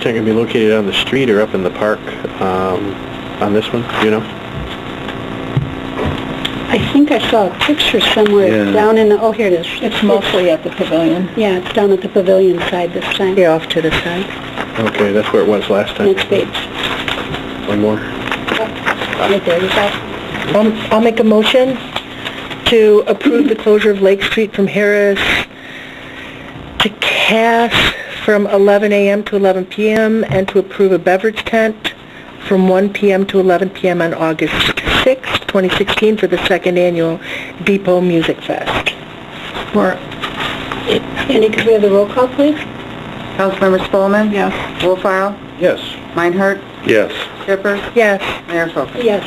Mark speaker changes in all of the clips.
Speaker 1: Is that going to be located on the street or up in the park um, on this one, do you know?
Speaker 2: I think I saw a picture
Speaker 1: Yeah.
Speaker 2: somewhere down in the, oh, here it is. It's
Speaker 3: mostly at the pavilion.
Speaker 2: Yeah, it's down at the pavilion side this time. Yeah, off to the side.
Speaker 1: Okay, that's where it was last time.
Speaker 2: Next page.
Speaker 1: One more.
Speaker 2: Right there, you got
Speaker 3: I'll I'll make a motion to approve the closure of Lake Street from Harris to Cass from 11 a.m. to 11 p.m. and to approve a beverage tent from 1 p.m. to 11 p.m. on August 6, 2016 for the second annual Depot Music Fest.
Speaker 4: For
Speaker 2: Sandy, could we have the roll call, please?
Speaker 4: Councilmember Spelman? Yes. Wolfile?
Speaker 1: Yes.
Speaker 4: Meinhardt?
Speaker 1: Yes.
Speaker 4: Shippers?
Speaker 3: Yes,
Speaker 4: Mayor Folkins?
Speaker 2: Yes.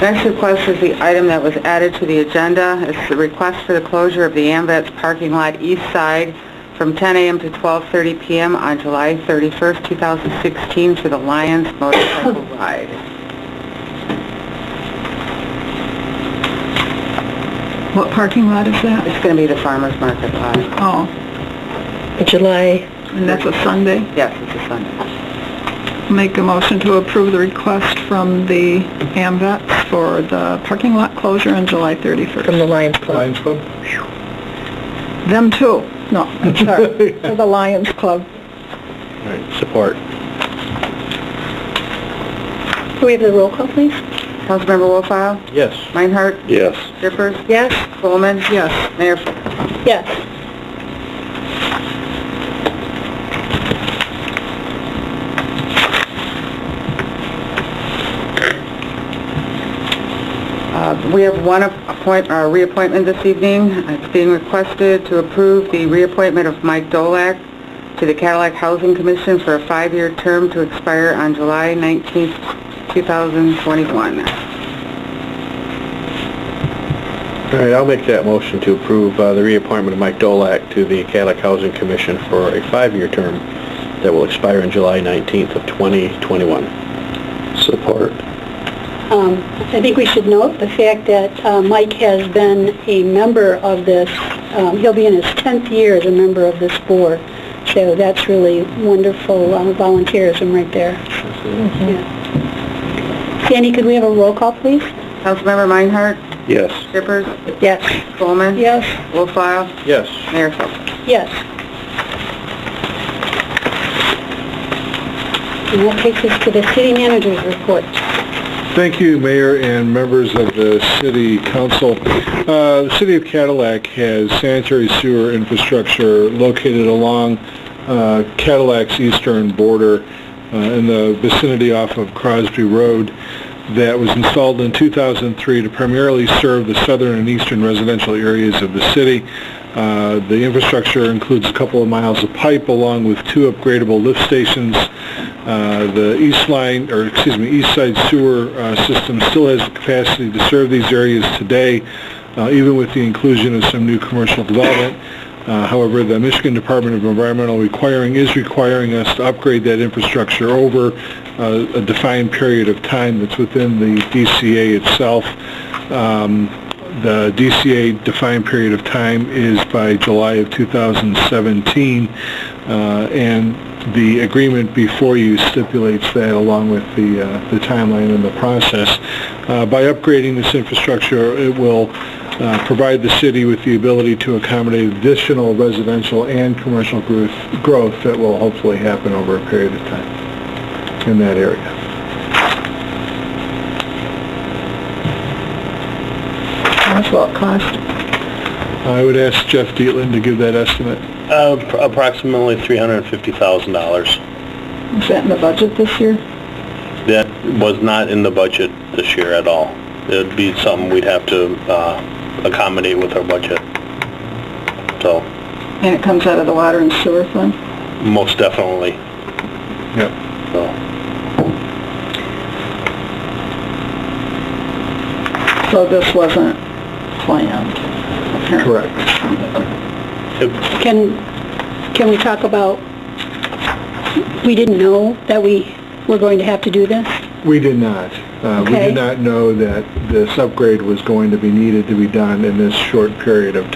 Speaker 4: Next request is the item that was added to the agenda. It's the request for the closure of the AMVets parking lot east side from 10 a.m. to 12:30 p.m. on July 31st, 2016 for the Lions motorcycle ride.
Speaker 5: What parking lot is that?
Speaker 4: It's going to be the farmer's market lot.
Speaker 5: Oh,
Speaker 3: July,
Speaker 5: and that's a Sunday.
Speaker 4: Yes, it's a Sunday.
Speaker 5: Make a motion to approve the request from the AMVets for the parking lot closure on July
Speaker 3: from
Speaker 5: 31st.
Speaker 3: the Lions Club.
Speaker 5: Them too. No, I'm sorry, for the Lions Club.
Speaker 1: All right, support.
Speaker 2: Could we have the roll call, please?
Speaker 4: Councilmember Wolfile?
Speaker 1: Yes.
Speaker 4: Meinhardt?
Speaker 1: Yes.
Speaker 4: Shippers?
Speaker 3: Yes?
Speaker 4: Spelman?
Speaker 5: Yes.
Speaker 4: Mayor Folkins?
Speaker 2: Yes.
Speaker 4: Uh, We have one appoint, uh, reappointment this evening. Uh, It's being requested to approve the reappointment of Mike Dolak to the Cadillac Housing Commission for a five-year term to expire on July 19th, 2021.
Speaker 1: All right, I'll make that motion to approve uh, the reappointment of Mike Dolak to the Cadillac Housing Commission for a five-year term that will expire on July 19th of 2021. Support.
Speaker 2: Um, I think we should note the fact that uh, Mike has been a member of this, um, he'll be in his 10th year as a member of this board. So that's really wonderful uh, volunteerism right there.
Speaker 5: Mm-hmm.
Speaker 2: Yeah. Sandy, could we have a roll call, please?
Speaker 4: Councilmember Meinhardt?
Speaker 1: Yes.
Speaker 4: Shippers?
Speaker 3: Yes.
Speaker 4: Spelman?
Speaker 2: Yes.
Speaker 4: Wolfile?
Speaker 1: Yes.
Speaker 4: Mayor Folkins?
Speaker 2: Yes. And that takes us to the city manager's report.
Speaker 6: Thank you, Mayor and members of the City Council. Uh, The City of Cadillac has sanitary sewer infrastructure located along uh, Cadillac's eastern border uh, in the vicinity off of Crosby Road that was installed in 2003 to primarily serve the southern and eastern residential areas of the city. Uh, The infrastructure includes a couple of miles of pipe along with two upgradable lift stations. Uh, The east line, or excuse me, east side sewer uh, system still has the capacity to serve these areas today, uh, even with the inclusion of some new commercial development. Uh, However, the Michigan Department of Environmental Requiring is requiring us to upgrade that infrastructure over uh, a defined period of time that's within the DCA itself. Um, The DCA defined period of time is by July of 2017, uh, and the agreement before you stipulates that along with the uh, the timeline and the process. Uh, By upgrading this infrastructure, it will uh, provide the city with the ability to accommodate additional residential and commercial growth growth that will hopefully happen over a period of time in that area.
Speaker 5: How much will it cost?
Speaker 6: I would ask Jeff Dietland to give that estimate.
Speaker 7: Uh, Approximately $350,000.
Speaker 5: Is that in the budget this year?
Speaker 7: That was not in the budget this year at all. It'd be something we'd have to uh, accommodate with our budget. So,
Speaker 5: And it comes out of the water and sewer fund?
Speaker 7: most definitely,
Speaker 6: Yep.
Speaker 7: so.
Speaker 5: So this wasn't planned? apparently.
Speaker 6: Correct.
Speaker 2: Can, can we talk about, we didn't know that we were going to have to do this?
Speaker 6: We did not. Uh, We
Speaker 2: Okay.
Speaker 6: did not know that this upgrade was going to be needed to be done in this short period of